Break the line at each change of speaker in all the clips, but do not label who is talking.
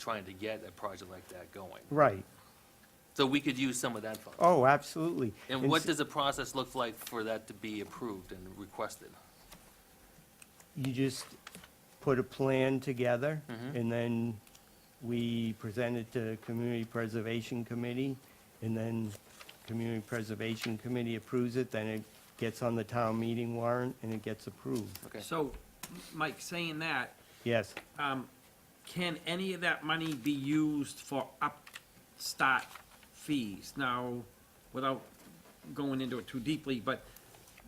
trying to get a project like that going.
Right.
So we could use some of that funding.
Oh, absolutely.
And what
s-
does the process look like for that to be approved and requested?
You just put a plan together,
Mhm.
and then we present it to Community Preservation Committee, and then Community Preservation Committee approves it, then it gets on the town meeting warrant, and it gets approved.
Okay.
So, M- Mike, saying that,
Yes,
um, can any of that money be used for upstart fees? Now, without going into it too deeply, but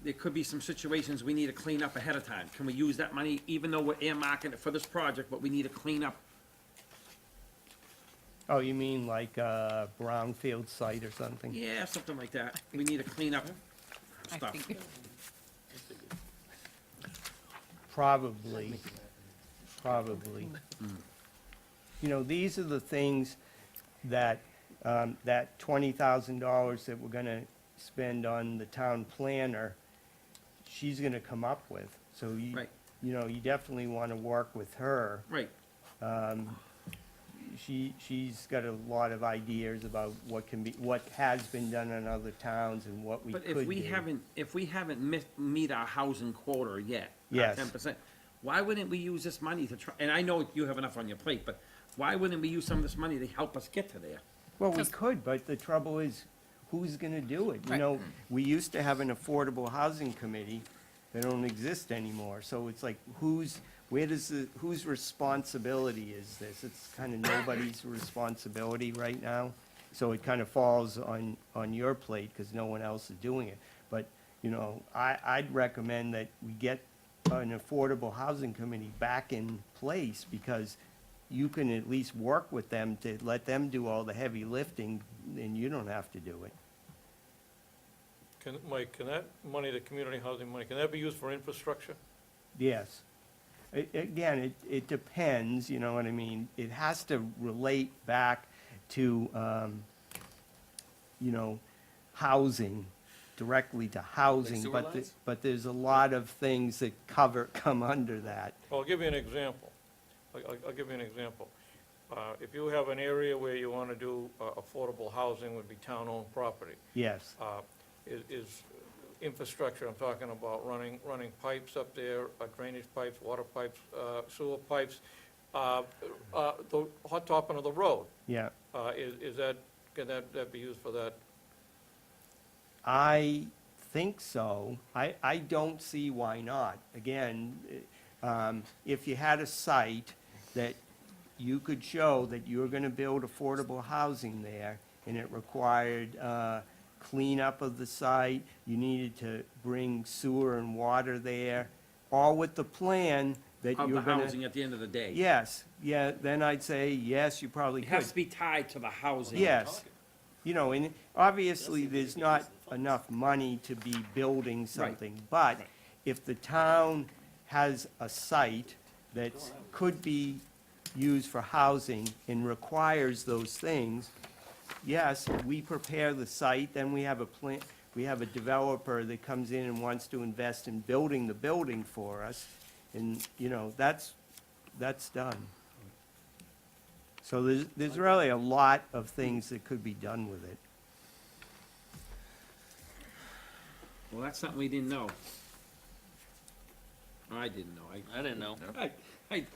there could be some situations we need to clean up ahead of time. Can we use that money, even though we're earmarking it for this project, but we need to clean up?
oh, you mean like a brownfield site or something?
Yeah, something like that. We need to clean up
I
stuff.
think,
Probably, probably. You know, these are the things that, um, that twenty thousand dollars that we're gonna spend on the town planner, she's gonna come up with. So you,
Right.
you know, you definitely wanna work with her.
Right,
She, she's got a lot of ideas about what can be, what has been done in other towns and what we could
but
do.
if we haven't, if we haven't met, meet our housing quota yet,
Yes.
ten percent, why wouldn't we use this money to try, and I know you have enough on your plate, but why wouldn't we use some of this money to help us get to there?
Well, we
'Cause-
could, but the trouble is, who's gonna do it? You
Right.
know, we used to have an affordable housing committee, they don't exist anymore, so it's like, who's, where does, the whose responsibility is this? It's kinda nobody's responsibility right now, so it kinda falls on, on your plate, cause no one else is doing it. But, you know, I, I'd recommend that we get an affordable housing committee back in place, because you can at least work with them to let them do all the heavy lifting, and you don't have to do it.
Can, Mike, can that money, the community housing money, can that be used for infrastructure?
Yes. A- Again, it, it depends, you know what I mean? It has to relate back to, um, you know, housing, directly to housing.
sewer
but the-
lines?
But there's a lot of things that cover, come under that.
I'll give you an example. I- I'll, I'll give you an example. Uh, If you have an area where you want to do uh, affordable housing, would be town-owned property,
Yes,
uh, is- is infrastructure, I'm talking about running, running pipes up there, uh, drainage pipes, water pipes, uh, sewer pipes, uh, uh, the hot topping of the road,
yeah.
uh, is is that, can that, that be used for that?
I think so. I, I don't see why not. Again, eh, um, if you had a site that you could show that you're gonna build affordable housing there, and it required, uh, cleanup of the site, you needed to bring sewer and water there, all with the plan that
Of
you're
the
gonna.
housing at the end of the day.
Yes, yeah, then I'd say, yes, you probably
It
could.
has to be tied to the housing.
Yes, you know, and obviously, there's not enough money to be building something, but if the town has a site that could be used for housing and requires those things, yes, we prepare the site, then we have a plan, we have a developer that comes in and wants to invest in building the building for us, and, you know, that's, that's done. So there's, there's really a lot of things that could be done with it.
Well, that's something we didn't know. I didn't know, I,
I didn't know,
I, I,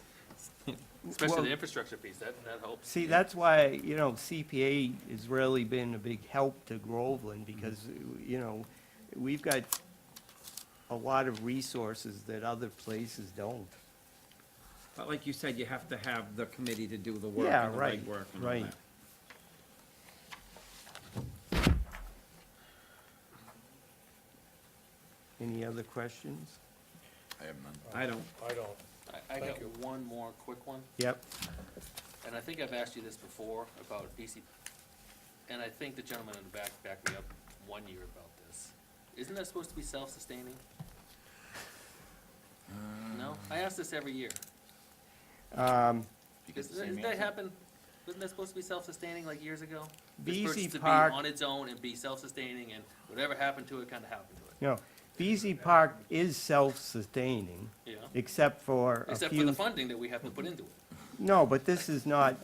especially the
Well-
infrastructure piece, that, that helps.
See, that's why, you know, CPA has really been a big help to Groveland, because, you know, we've got a lot of resources that other places don't.
but like you said, you have to have the committee to do the work
Yeah,
and the
right,
right work and all
right.
that.
Any other questions?
I have none.
I don't,
I don't.
I, I got one more quick one.
Yep,
and I think I've asked you this before about BC, and I think the gentleman in the back backed me up one year about this. Isn't that supposed to be self-sustaining? No? I ask this every year.
Um,
You get the same
Doesn't that
answer?
happen? Wasn't that supposed to be self-sustaining like years ago? It's
BZ
supposed to be
Park-
on its own and be self-sustaining and whatever happened to it kinda happened to
no, BZ Park is self-sustaining,
it, you know?
except for a few.
Except for the funding that we have to put into it.
No, but this is not,